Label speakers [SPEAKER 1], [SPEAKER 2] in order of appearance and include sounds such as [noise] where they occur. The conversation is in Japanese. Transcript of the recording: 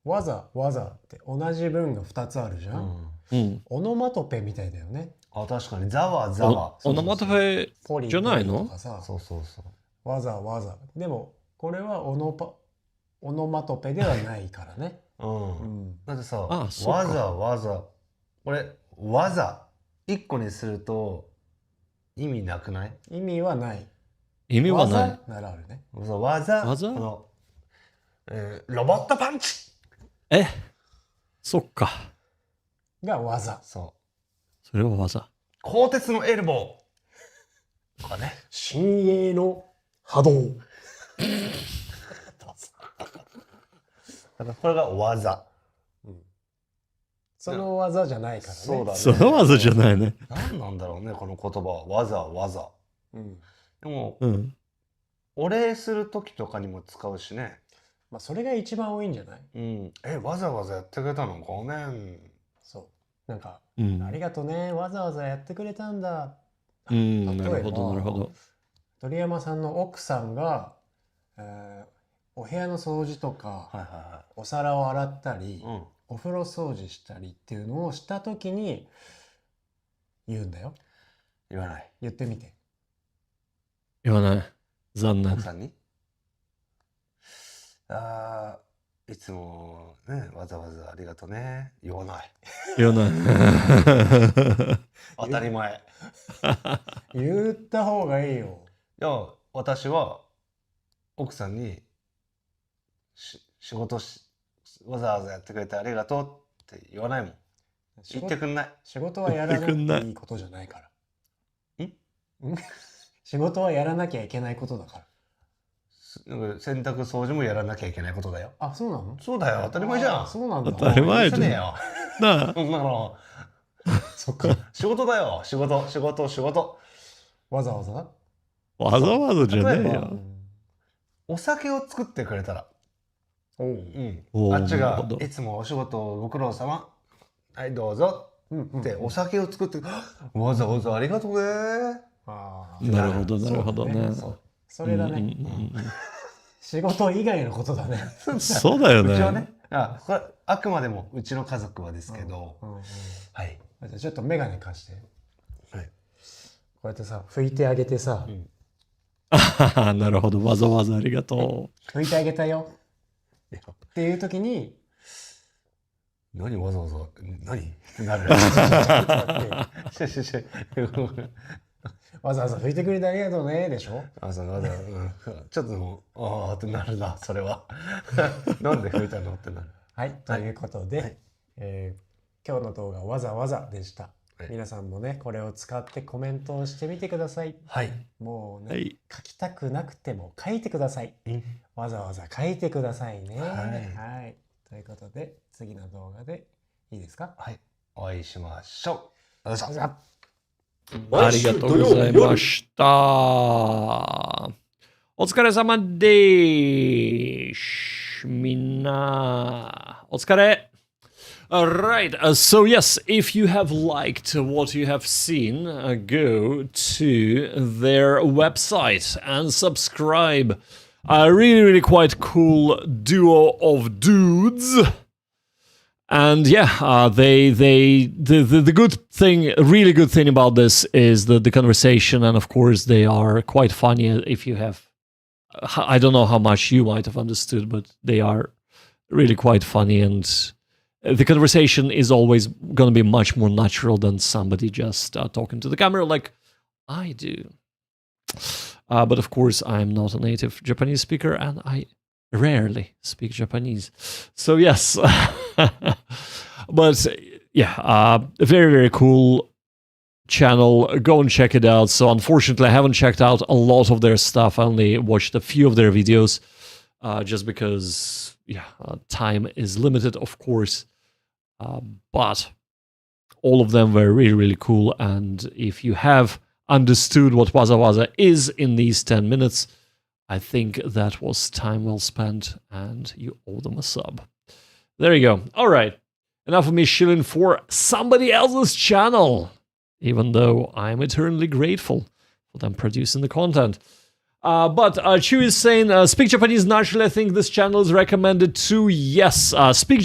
[SPEAKER 1] わざわざって同じ文が2つあるじゃん、
[SPEAKER 2] うん。
[SPEAKER 1] オノマトペみたいだよね
[SPEAKER 3] あ確かにざわざわ
[SPEAKER 2] おオノマトペ、
[SPEAKER 1] ポリ
[SPEAKER 2] じゃないの
[SPEAKER 1] ポリとかさ
[SPEAKER 3] そうそうそう
[SPEAKER 1] わざわざでもこれはオノパオノマトペではないからね、
[SPEAKER 3] うん、だってさ
[SPEAKER 2] あ
[SPEAKER 3] わ
[SPEAKER 2] そう
[SPEAKER 3] ざ
[SPEAKER 2] か
[SPEAKER 3] わざこれわざ一個にすると意味なくない
[SPEAKER 1] 意味はない
[SPEAKER 2] 意味はな
[SPEAKER 1] わ
[SPEAKER 2] い。
[SPEAKER 1] ざならあるね
[SPEAKER 3] そうわざ
[SPEAKER 2] わざ
[SPEAKER 3] この、えーロボットパンチ
[SPEAKER 2] えそっか。
[SPEAKER 1] が技
[SPEAKER 3] そう
[SPEAKER 2] それは技。
[SPEAKER 3] 鋼鉄のエルボーとかね [laughs]
[SPEAKER 1] 新鋭の波動
[SPEAKER 3] だからこれが技
[SPEAKER 1] その技じゃないからね
[SPEAKER 3] そうだね
[SPEAKER 2] その技じゃないね。
[SPEAKER 3] 何なんだろうねこの言葉はわざわざ
[SPEAKER 1] うん
[SPEAKER 3] でも
[SPEAKER 2] うん。
[SPEAKER 3] お礼する時とかにも使うしね
[SPEAKER 1] まあ、それが一番多いんじゃない
[SPEAKER 3] うんえわざわざやってくれたのごめん
[SPEAKER 1] そうなんか、
[SPEAKER 2] う
[SPEAKER 1] あ
[SPEAKER 2] ん。
[SPEAKER 1] りがとうねわざわざやってくれたんだ
[SPEAKER 2] うん
[SPEAKER 1] 例えば
[SPEAKER 2] なるほど、なるほど。
[SPEAKER 1] 鳥山さんの奥さんが、えーお部屋の掃除とか、
[SPEAKER 3] はいは
[SPEAKER 1] お皿を洗ったり、
[SPEAKER 3] いはいうん
[SPEAKER 1] お風呂掃除したりっていうのをした時に言うんだよ
[SPEAKER 3] 言わない
[SPEAKER 1] 言ってみて
[SPEAKER 2] 言わない。残念
[SPEAKER 3] 奥。さんに [laughs] あーいつもねわざわざありがとね言わない
[SPEAKER 1] [laughs]
[SPEAKER 2] 言わない。
[SPEAKER 3] 当たり前い
[SPEAKER 1] 言った方がいいよ
[SPEAKER 3] や私は奥さんにし仕事しわざわざやってくれてありがとうって言わないもん
[SPEAKER 1] 仕
[SPEAKER 3] 言って
[SPEAKER 1] 事
[SPEAKER 3] くんない
[SPEAKER 1] 仕事はやらな
[SPEAKER 2] 言ってくんな
[SPEAKER 1] く
[SPEAKER 2] い
[SPEAKER 1] ていいことじゃないから
[SPEAKER 3] ん
[SPEAKER 1] ん [laughs] 仕事はやらなきゃいけないことだから
[SPEAKER 3] すなんか洗濯掃除もやらなきゃいけないことだよ
[SPEAKER 1] あそうなの
[SPEAKER 3] そうだよ当たり前じゃ
[SPEAKER 1] あ
[SPEAKER 3] ん
[SPEAKER 1] そうなんだ
[SPEAKER 2] 当たり前
[SPEAKER 3] じ
[SPEAKER 2] じ
[SPEAKER 3] ゃね
[SPEAKER 2] ゃん
[SPEAKER 3] えよ
[SPEAKER 2] なあ。
[SPEAKER 3] そんなの
[SPEAKER 1] そっか
[SPEAKER 3] 仕事だよ仕事仕事仕事
[SPEAKER 1] わざわざ
[SPEAKER 2] わざわざじゃねえ
[SPEAKER 3] 例え
[SPEAKER 1] う
[SPEAKER 2] よ。
[SPEAKER 1] ん
[SPEAKER 3] お酒を作ってくれたら
[SPEAKER 1] おう
[SPEAKER 3] う
[SPEAKER 2] お
[SPEAKER 3] ん、
[SPEAKER 2] ー
[SPEAKER 3] あっち
[SPEAKER 2] なる
[SPEAKER 3] が
[SPEAKER 2] ほど
[SPEAKER 3] いつもお仕事ご苦労様はいどうぞ
[SPEAKER 1] うんうん
[SPEAKER 3] ってお酒を作って、わざわざありがとうね
[SPEAKER 1] あー
[SPEAKER 2] なるほど、なるほどね。
[SPEAKER 3] そう
[SPEAKER 1] それだね、
[SPEAKER 2] うんうんうん
[SPEAKER 1] 仕事以外のことだね、
[SPEAKER 2] うんそうだよ
[SPEAKER 3] うちは
[SPEAKER 2] ね
[SPEAKER 3] ね。あこれあくまでもうちの家族はですけど、
[SPEAKER 1] うんうん
[SPEAKER 3] はい、
[SPEAKER 1] あじゃあちょっと眼鏡貸して
[SPEAKER 3] はい
[SPEAKER 1] こうやってさ拭いてあげてさ、
[SPEAKER 3] うん
[SPEAKER 2] あなるほど、わざわざありがと
[SPEAKER 1] 拭いてあげたよ
[SPEAKER 3] いや
[SPEAKER 1] っていう時に
[SPEAKER 3] [laughs] 何わざわざ何って
[SPEAKER 2] [laughs]
[SPEAKER 3] なるししし
[SPEAKER 1] わざわざ拭いてくれてありがとうねでしょ
[SPEAKER 3] あそうわざわざ、うんちょっともうああってなるなそれは [laughs] なんで吹いたのってなる
[SPEAKER 1] はいということで、
[SPEAKER 3] はい
[SPEAKER 1] えー今日の動画はわざわざでした、
[SPEAKER 3] はい
[SPEAKER 1] 皆さんもねこれを使ってコメントをしてみてください
[SPEAKER 3] はい
[SPEAKER 1] もう
[SPEAKER 2] う。
[SPEAKER 1] ね、
[SPEAKER 2] はい。
[SPEAKER 1] 書きたくなくても書いてください
[SPEAKER 3] うん
[SPEAKER 1] わざわざ書いてくださいね
[SPEAKER 3] はい
[SPEAKER 1] はいということで次の動画でいいですか
[SPEAKER 3] はいお会いしましょうありがとうご
[SPEAKER 1] じ
[SPEAKER 3] ざいました
[SPEAKER 1] ゃあ
[SPEAKER 2] ありがとうございました。お疲れ様でーす。みんな、お疲れ。Alright, uh, so yes, if you have liked what you have seen, uh, go to their website and subscribe. A really, really quite cool duo of dudes and yeah uh, they they the, the the good thing really good thing about this is the the conversation and of course they are quite funny if you have i don't know how much you might have understood but they are really quite funny and the conversation is always going to be much more natural than somebody just uh, talking to the camera like i do uh, but of course i'm not a native japanese speaker and i rarely speak Japanese. So yes, [laughs] but yeah, uh, very very cool channel. Go and check it out. So unfortunately, I haven't checked out a lot of their stuff. I only watched a few of their videos, uh, just because yeah, uh, time is limited, of course. Uh, but all of them were really really cool. And if you have understood what Waza Waza is in these ten minutes, I think that was time well spent, and you owe them a sub. There you go. All right. Enough of me shilling for somebody else's channel, even though I'm eternally grateful for them producing the content. Uh, but uh, Chu is saying, uh, Speak Japanese naturally. I think this channel is recommended to yes. Uh, speak